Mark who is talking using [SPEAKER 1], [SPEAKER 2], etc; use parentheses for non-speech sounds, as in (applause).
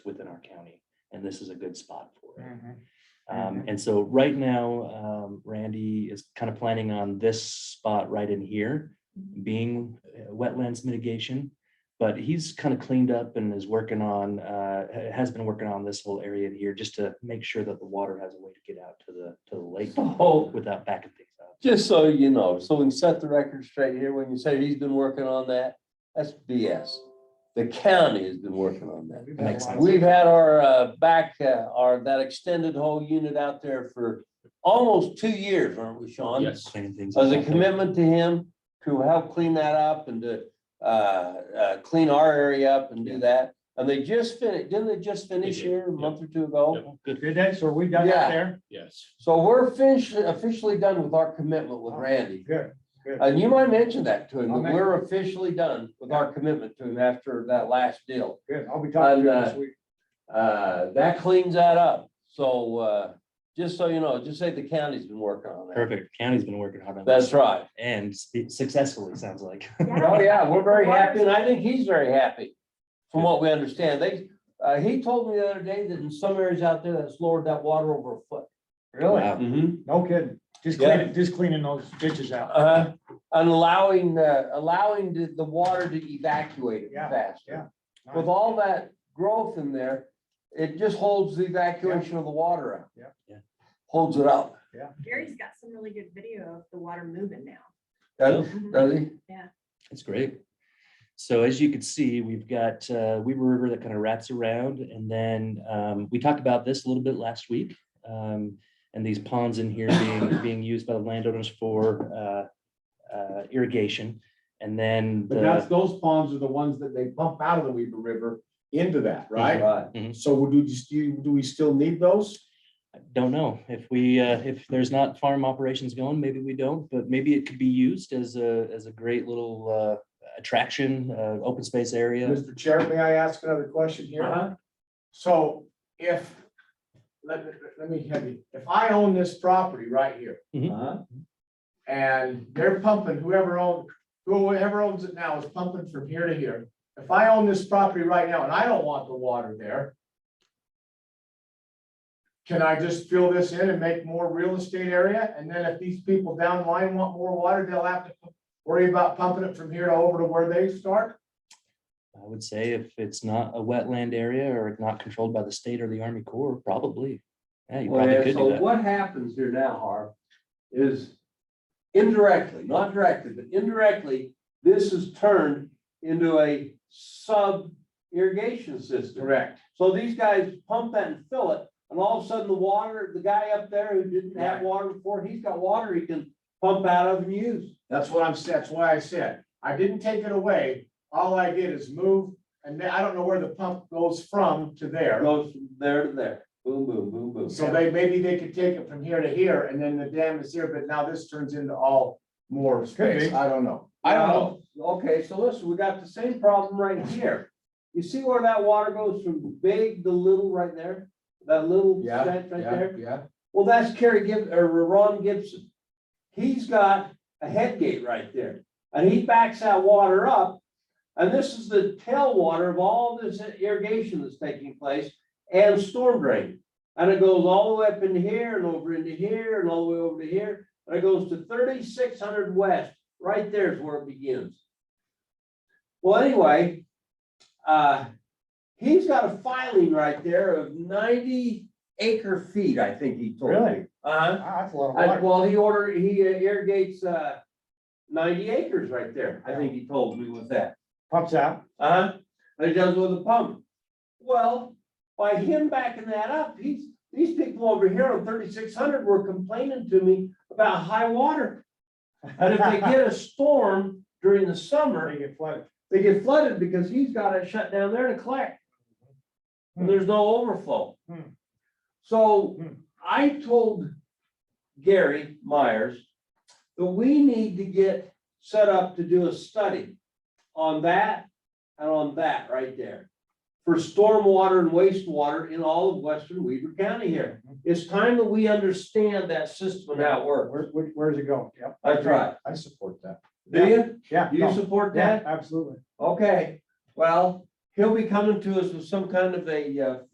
[SPEAKER 1] within our county, and this is a good spot for it.
[SPEAKER 2] Mhm.
[SPEAKER 1] Um, and so right now, um, Randy is kind of planning on this spot right in here being uh, wetlands mitigation. But he's kind of cleaned up and is working on, uh, ha- has been working on this whole area here just to make sure that the water has a way to get out to the, to the
[SPEAKER 3] (sighs)
[SPEAKER 1] lake
[SPEAKER 3] So,
[SPEAKER 1] without backing things up.
[SPEAKER 3] Oh, just so you know, so we set the record straight here, when you say he's been working on that, that's BS. The county has been working on that.
[SPEAKER 2] Mm-hmm. We've
[SPEAKER 1] Makes
[SPEAKER 2] had a lot of-
[SPEAKER 3] We've had our uh, back, uh, our, that extended whole unit out there for almost two years, aren't we, Sean?
[SPEAKER 1] Cleaning things
[SPEAKER 3] As a
[SPEAKER 1] up.
[SPEAKER 3] commitment to him to help clean that up and to uh, uh, clean our area up and do that. And they just finished, didn't they just finish
[SPEAKER 4] They did,
[SPEAKER 3] here a
[SPEAKER 4] yeah.
[SPEAKER 3] month or two ago?
[SPEAKER 1] Good.
[SPEAKER 2] Did they? So we done
[SPEAKER 3] Yeah.
[SPEAKER 2] that there?
[SPEAKER 4] Yes.
[SPEAKER 3] So we're officially, officially done with our commitment
[SPEAKER 4] Oh,
[SPEAKER 3] with Randy.
[SPEAKER 2] Good, good.
[SPEAKER 3] And you might mention that to him,
[SPEAKER 2] I'll
[SPEAKER 3] that
[SPEAKER 2] mention-
[SPEAKER 3] we're officially done with our commitment to him after that last deal.
[SPEAKER 2] Good. I'll be talking to you
[SPEAKER 3] And,
[SPEAKER 2] this
[SPEAKER 3] uh,
[SPEAKER 2] week.
[SPEAKER 3] Uh, that cleans that up. So, uh, just so you know, just say the county's been working on that.
[SPEAKER 1] Perfect. County's been working hard on this.
[SPEAKER 3] That's right.
[SPEAKER 1] And spe- successfully, sounds like.
[SPEAKER 3] Oh, (laughs) yeah, we're very happy and I think he's very happy from what we understand. They, uh, he told me the other day that in some areas out there that's lowered that water over a foot.
[SPEAKER 2] Really?
[SPEAKER 1] Wow.
[SPEAKER 3] Mhm.
[SPEAKER 2] No kidding. Just
[SPEAKER 3] Yeah.
[SPEAKER 2] cleaning, just cleaning those ditches out.
[SPEAKER 3] Uh-huh. And allowing, uh, allowing the, the water to evacuate it
[SPEAKER 2] Yeah,
[SPEAKER 3] faster.
[SPEAKER 2] yeah.
[SPEAKER 3] With all that growth in there, it just holds the evacuation of the water out.
[SPEAKER 2] Yeah.
[SPEAKER 1] Yeah.
[SPEAKER 3] Holds it up,
[SPEAKER 5] Gary's got some really good video of the water moving now.
[SPEAKER 3] does does he?
[SPEAKER 1] That's great. So as you can see, we've got uh, Weaver River that kind of wraps around, and then um, we talked about this a little bit last week. um, and these ponds in here
[SPEAKER 6] (coughs)
[SPEAKER 1] being being used by the landowners for uh, uh, irrigation, and then
[SPEAKER 6] But that's,
[SPEAKER 1] the,
[SPEAKER 6] those ponds are the ones that they pump out of the Weaver River into that, right?
[SPEAKER 3] Right.
[SPEAKER 6] So would you, just- you- do we still need those?
[SPEAKER 1] I don't know if we uh, if there's not farm operations going, maybe we don't, but maybe it could be used as a as a great little uh, attraction, uh, open space area.
[SPEAKER 6] Mr. Chair, may I ask another question
[SPEAKER 3] Uh-huh.
[SPEAKER 6] here? So if, let, let me have you, if I own this property right here
[SPEAKER 3] Uh-huh.
[SPEAKER 6] and they're pumping, whoever owns, whoever owns it now is pumping from here to here. If I own this property right now and I don't want the water there, can I just fill this in and make more real estate area? And then if these people down the line want more water, they'll have to worry about pumping it from here to over to where they start?
[SPEAKER 1] I would say if it's not a wetland area or not controlled by the state or the Army Corps, probably. Yeah, you
[SPEAKER 3] Well,
[SPEAKER 1] probably
[SPEAKER 3] yeah,
[SPEAKER 1] could
[SPEAKER 3] so
[SPEAKER 1] do that.
[SPEAKER 3] what happens here now, Harv, is indirectly, not directly, but indirectly, this is turned into a sub irrigation system.
[SPEAKER 6] Correct.
[SPEAKER 3] So these guys pump that and fill it, and all of a sudden the water, the guy up there who didn't have
[SPEAKER 6] Right.
[SPEAKER 3] water before, he's got water he can pump out of and use.
[SPEAKER 6] That's what I'm, that's why I said, I didn't take it away. All I did is move, and then I don't know where the pump goes from to there.
[SPEAKER 3] Goes from there to there, boom, boom, boom, boom.
[SPEAKER 6] So they, maybe they could take it from here to here and then the dam is here, but now this turns into all more space.
[SPEAKER 2] be.
[SPEAKER 6] I don't know.
[SPEAKER 3] I don't know. Okay, so listen, we got the same problem right here. You see where that water goes from big to little right there? That little
[SPEAKER 6] Yeah,
[SPEAKER 3] stretch right there?
[SPEAKER 6] yeah.
[SPEAKER 3] Well, that's Kerry Gib, or Ron Gibson. He's got a head gate right there, and he backs that water up. And this is the tailwater of all this irrigation that's taking place and storm drain. And it goes all the way up into here and over into here and all the way over to here. And it goes to thirty-six hundred west, right there is where it begins. Well, anyway, uh, he's got a filing right there of ninety acre feet, I think he told me.
[SPEAKER 2] Really?
[SPEAKER 3] Uh-huh.
[SPEAKER 2] Wow, Ah, That's a lot of
[SPEAKER 3] I-
[SPEAKER 2] water.
[SPEAKER 3] well, he order, he irrigates, uh, ninety acres right there, I think he told me with that.
[SPEAKER 2] Pumps out.
[SPEAKER 3] Uh-huh, and he does with a pump. Well, by him backing that up, he's, these people over here on thirty-six hundred were complaining to me about high water. And if they get a storm during the summer,
[SPEAKER 2] They get flooded.
[SPEAKER 3] they get flooded because he's got it shut down there to collect. And there's no overflow.
[SPEAKER 2] Hmm.
[SPEAKER 3] So
[SPEAKER 2] Hmm.
[SPEAKER 3] I told Gary Myers that we need to get set up to do a study on that and on that right there for stormwater and wastewater in all of western Weaver County here.
[SPEAKER 2] Mm-hmm.
[SPEAKER 3] It's time that we understand that system and how it
[SPEAKER 2] Where,
[SPEAKER 3] works.
[SPEAKER 2] where, where's it going? Yep.
[SPEAKER 3] That's right.
[SPEAKER 6] I support that.
[SPEAKER 3] Do you?
[SPEAKER 2] Yeah.
[SPEAKER 3] Do you
[SPEAKER 2] no,
[SPEAKER 3] support
[SPEAKER 2] Yeah,
[SPEAKER 3] that?
[SPEAKER 2] absolutely.
[SPEAKER 3] Okay, well, he'll be coming to us with some kind of a, uh,